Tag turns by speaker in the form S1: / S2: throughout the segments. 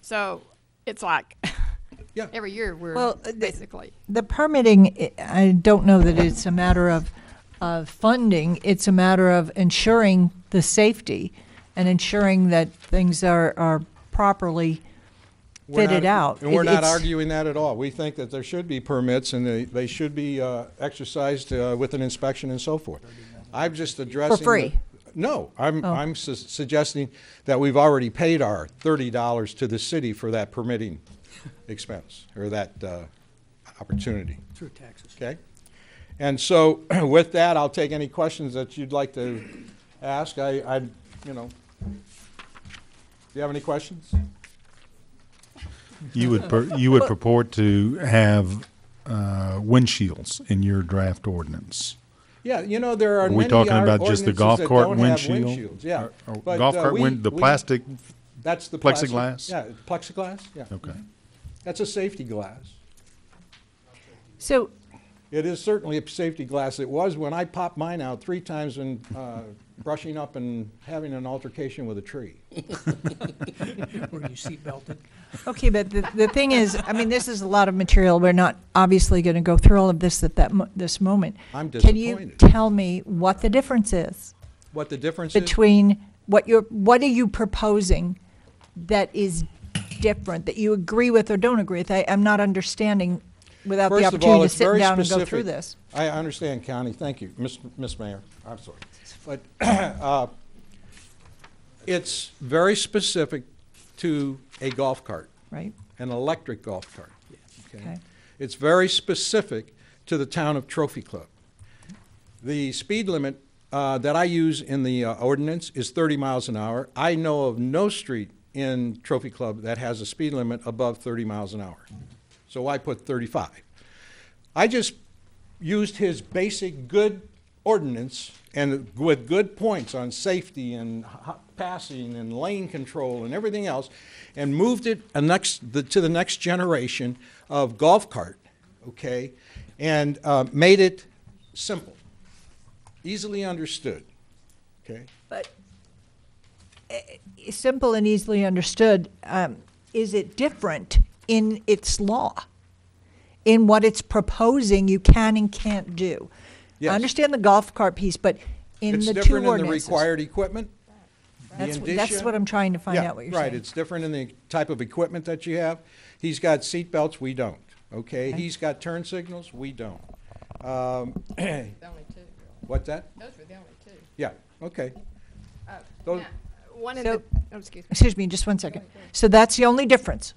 S1: So it's like
S2: Yeah.
S1: every year we're
S3: Well, uh, the-
S1: basically.
S3: The permitting, I I don't know that it's a matter of, of funding, it's a matter of ensuring the safety and ensuring that things are, are properly
S2: We're
S3: fitted
S2: not-
S3: out.
S2: And we're
S3: It-
S2: not
S3: it's-
S2: arguing that at all. We think that there should be permits and they, they should be uh, exercised uh, with an inspection and so forth. I'm just addressing. the-
S3: free? Oh.
S2: No, I'm, I'm su- suggesting that we've already paid our thirty dollars to the city for that permitting expense or that uh, opportunity.
S4: Through taxes.
S2: Okay? And so with that, I'll take any questions that you'd like to ask. I, I, you know, do you have any questions?
S5: You would, pur- you would purport to have uh, windshields in your draft ordinance.
S2: Yeah, you know, there are
S5: Are we
S2: many
S5: talking
S2: yard
S5: about just the
S2: ordinances
S5: golf
S2: that
S5: cart
S2: don't have
S5: windshield?
S2: windshields, Yeah.
S5: Or- or
S2: But,
S5: Golf
S2: uh,
S5: cart
S2: we-
S5: wind, the
S2: we-
S5: plastic,
S2: That's the plastic-
S5: plexiglass?
S2: Yeah, plexiglass, yeah.
S5: okay.
S2: That's a safety glass.
S3: So,
S2: It is certainly a safety glass. It was when I popped mine out three times and uh, brushing up and having an altercation with a tree.
S4: Were you seat belted?
S3: okay, but the, the thing is, I mean, this is a lot of material, we're not obviously going to go through all of this at that, mo- this moment.
S2: I'm
S3: Can you
S2: disappointed.
S3: tell me what the difference is?
S2: What the difference is?
S3: between what you're, what are you proposing that is different, that you agree with or don't agree with? I, I'm not understanding without
S2: First
S3: the
S2: of all,
S3: opportunity to
S2: it's
S3: sit
S2: very
S3: down and
S2: specific.
S3: go through this.
S2: I understand, Connie, thank you, Miss Miss Mayor, I'm sorry. But uh, it's very specific to a golf cart,
S3: Right,
S2: an electric golf cart.
S3: okay.
S2: It's very specific to the town of Trophy Club. The speed limit uh, that I use in the uh, ordinance is 30 miles an hour. I know of no street in Trophy Club that has a speed limit above 30 miles an hour. So I put 35. I just used his basic good ordinance and with good points on safety and ho- passing and lane control and everything else, and moved it a next, the, to the next generation of golf cart, okay, and uh, made it simple, easily understood, okay.
S3: But eh, eh, simple and easily understood, um, is it different in its law? In what it's proposing you can and can't do? I
S2: Yes.
S3: understand the golf cart piece, but in
S2: it's
S3: the two
S2: different in the
S3: ordinances.
S2: required equipment. the
S3: That's wh- that's
S2: indicia.
S3: what I'm trying to find
S2: Yeah,
S3: out what you're
S2: Right,
S3: saying.
S2: it's different in the type of equipment that you have. He's got seat belts, we don't, okay? He's got turn signals, we don't. Um,
S1: The only two.
S2: What's that?
S1: Those were the only two.
S2: Yeah, okay.
S1: Oh,
S2: Those-
S1: now, One of
S3: So-
S1: the, oh, excuse me.
S3: Excuse me, just one second. So that's the only difference?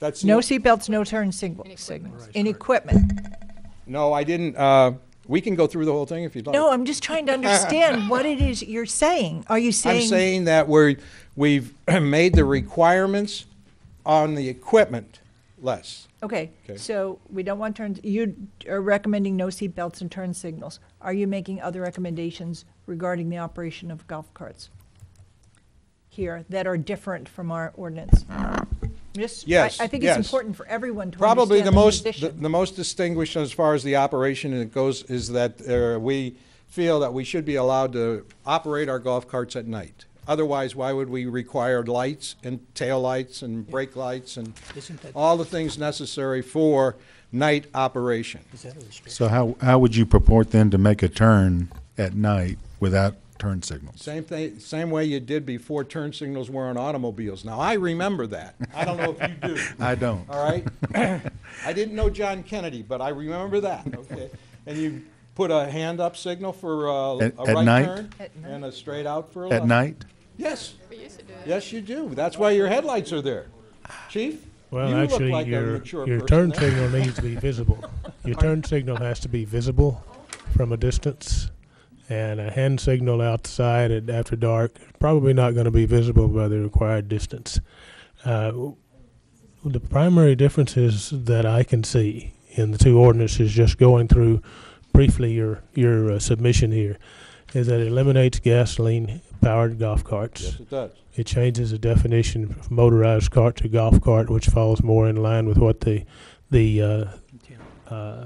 S2: That's
S3: No
S2: the-
S3: seatbelts, no turn signal- signals,
S4: Right,
S3: in equipment.
S2: Oh. No, I didn't, uh, we can go through the whole thing if you'd like.
S3: No, I'm just trying to understand what it is you're saying. Are you
S2: I'm
S3: saying,
S2: saying that we're, we've made the requirements on the equipment less.
S3: okay,
S2: Okay.
S3: so we don't want turns, you are recommending no seatbelts and turn signals. Are you making other recommendations regarding the operation of golf carts here that are different from our ordinance? Just, I-
S2: Yes,
S3: I think
S2: yes.
S3: it's important for everyone to
S2: Probably
S3: understand
S2: the
S3: the
S2: most,
S3: position.
S2: the the most distinguished as far as the operation it goes is that uh, we feel that we should be allowed to operate our golf carts at night. Otherwise, why would we require lights and taillights and brake lights and
S4: Isn't that-
S2: all the things necessary for night operation?
S4: Is that a restriction?
S5: So how, how would you purport then to make a turn at night without turn signals?
S2: Same thing, same way you did before turn signals were on automobiles. Now, I remember that. I don't know if you do.
S5: I don't.
S2: All right? I didn't know John Kennedy, but I remember that, okay? And you put a hand up signal for uh,
S5: At-
S2: a
S5: at
S2: right
S5: night?
S2: turn and a straight out for a
S5: At
S2: left.
S5: night?
S2: Yes,
S1: We used to do it.
S2: yes, you do. That's why your headlights are there. Chief?
S6: Well,
S2: you look
S6: actually,
S2: like a
S6: your
S2: mature
S6: your
S2: person
S6: turn
S2: there.
S6: signal needs to be visible. Your turn signal has to be visible from a distance, and a hand signal outside at, after dark probably not going to be visible by the required distance. Uh, w- the primary differences that I can see in the two ordinances, just going through briefly your your uh, submission here, is that it eliminates gasoline powered golf carts.
S2: Yes, it does.
S6: It changes the definition of motorized cart to golf cart, which falls more in line with what the the uh, uh,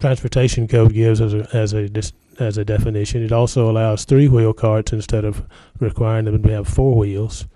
S6: transportation code gives as a as a dis- as a definition. It also allows three wheel carts instead of requiring them to have four wheels.